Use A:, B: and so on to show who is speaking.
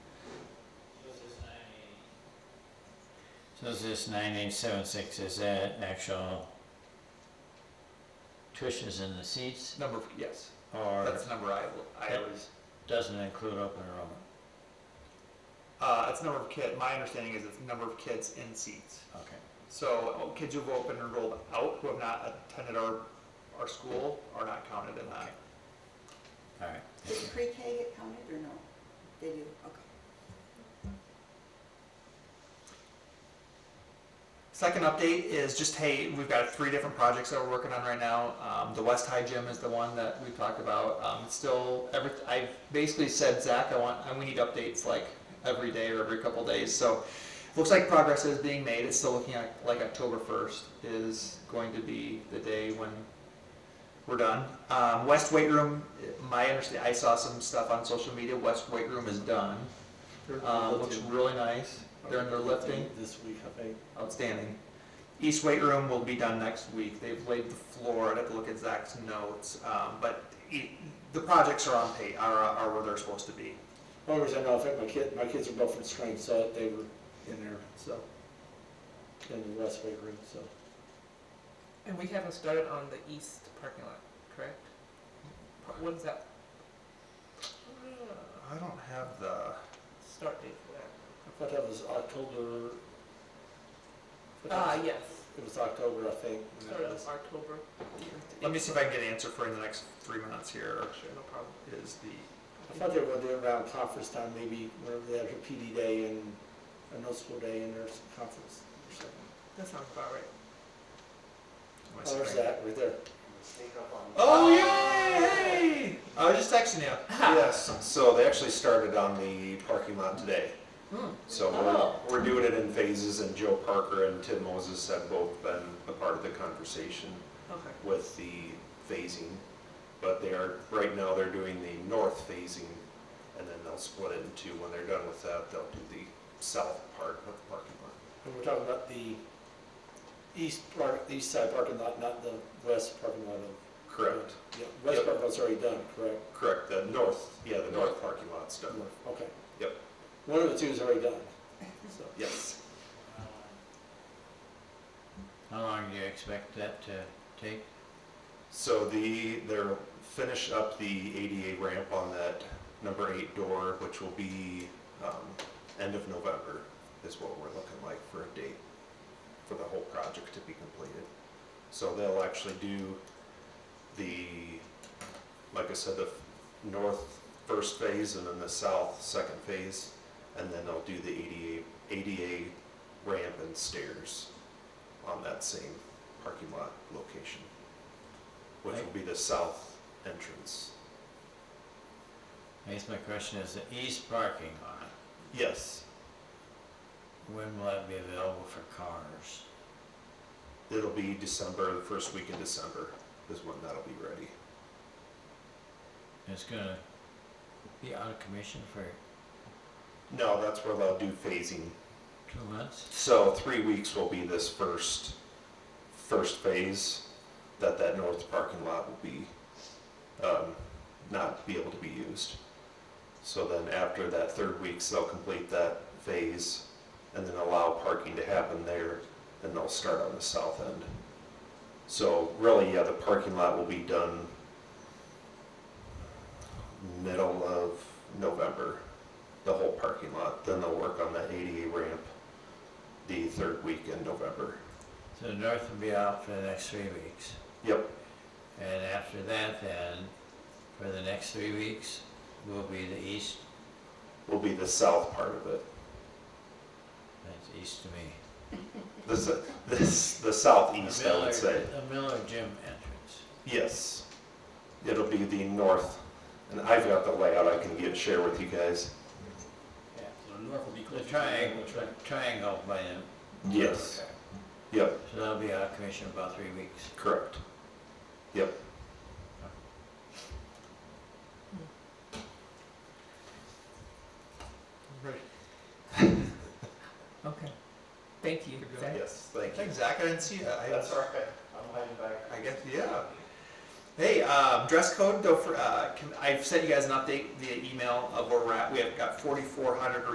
A: So is this nine eight seven six, is that actual cushions in the seats?
B: Number, yes,
A: Or
B: that's the number I, I was,
A: doesn't include open enrollment?
B: uh, that's number of kid, my understanding is it's number of kids in seats.
A: Okay.
B: So oh, kids who've opened and rolled out who have not attended our, our school are not counted in that.
A: All right.
C: Did pre-K get counted or no? They do, okay.
B: Second update is just, hey, we've got three different projects that we're working on right now. Um, the West High Gym is the one that we've talked about. Um, it's still, every, I basically said, Zach, I want, I- we need updates like every day or every couple days. So looks like progress is being made. It's still looking like, like October 1st is going to be the day when we're done. Um, West Weight Room, my understanding, I saw some stuff on social media. West Weight Room is done.
D: Uh,
B: Um, looks really nice. They're in their lifting.
D: This week, I think.
B: Outstanding. East weight room will be done next week. They've laid the floor. I'd have to look at Zach's notes, um, but e- the projects are on pay, are, are where they're supposed to be.
D: Only reason I know, in fact, my kid, my kids are both from Spring, so they were in there, so. In the West Bay room, so.
E: And we haven't started on the east parking lot, correct? Pa- What is that?
B: Uh, I don't have the,
E: Start date for that.
D: I thought that was October. I thought that
E: Ah,
D: was-
E: yes,
D: It was October, I think. when that
E: start of
D: was.
E: October.
B: let me see if I can get an answer for you in the next three minutes here,
E: Sure, no problem.
B: is the,
D: I thought they were gonna do it around conference time, maybe whenever they have your PD day and a no school day and there's a conference or something.
E: That sounds about right.
B: my
D: Oh, there's
B: screen.
D: that, right there.
B: Oh, yay! I was just texting you.
F: Yes, so they actually started on the parking lot today.
E: Hmm.
F: So
E: Oh.
F: we're, we're doing it in phases, and Joe Parker and Tim Moses have both been a part of the conversation
E: Okay.
F: with the phasing. But they are, right now, they're doing the north phasing, and then they'll split it into, when they're done with that, they'll do the south part of the parking lot.
D: And we're talking about the east park, the east side parking lot, not the west parking lot of
F: Correct,
D: Yeah, West
F: Yep.
D: Park was already done, correct?
F: correct, the north, yeah, the north parking lot's done,
D: Okay.
F: Yep.
D: One of the two is already done, so.
F: yes.
A: How long do you expect that to take?
F: So the, they're finish up the ADA ramp on that number eight door, which will be, um, end of November is what we're looking like for a date for the whole project to be completed. So they'll actually do the, like I said, the north first phase and then the south second phase. And then they'll do the ADA, ADA ramp and stairs on that same parking lot location which will be the south entrance.
A: I guess my question is the east parking lot,
F: Yes,
A: when will that be available for cars?
F: it'll be December, the first week in December is when that'll be ready.
A: It's gonna be out of commission for
F: No, that's where they'll do phasing.
A: two months?
F: So three weeks will be this first, first phase that that north parking lot will be, um, not be able to be used. So then after that third week, they'll complete that phase and then allow parking to happen there and they'll start on the south end. So really, yeah, the parking lot will be done middle of November, the whole parking lot. Then they'll work on that ADA ramp the third week in November.
A: So the north will be out for the next three weeks.
F: Yep,
A: And after that then, for the next three weeks, will be the east,
F: will be the south part of it.
A: that's east to me.
F: This, this, the
A: The
F: southeast, I
A: Miller-
F: would say.
A: The Miller Gym entrance.
F: Yes. It'll be the north, and I've got the layout I can get, share with you guys.
A: Yeah.
D: So north will be
A: The triangle, triangle by the.
F: Yes, yep,
A: So that'll be out of commission about three weeks.
F: correct. Yep,
E: Okay. Thank you,
B: Good
E: Zach.
F: yes, thank you.
B: Thanks, Zach, I didn't see that. I-
F: right, I'm hiding back.
B: I guess, yeah. Hey, um, dress code, though, for, uh, can, I've sent you guys an update via email of where we're at. We have got 4,400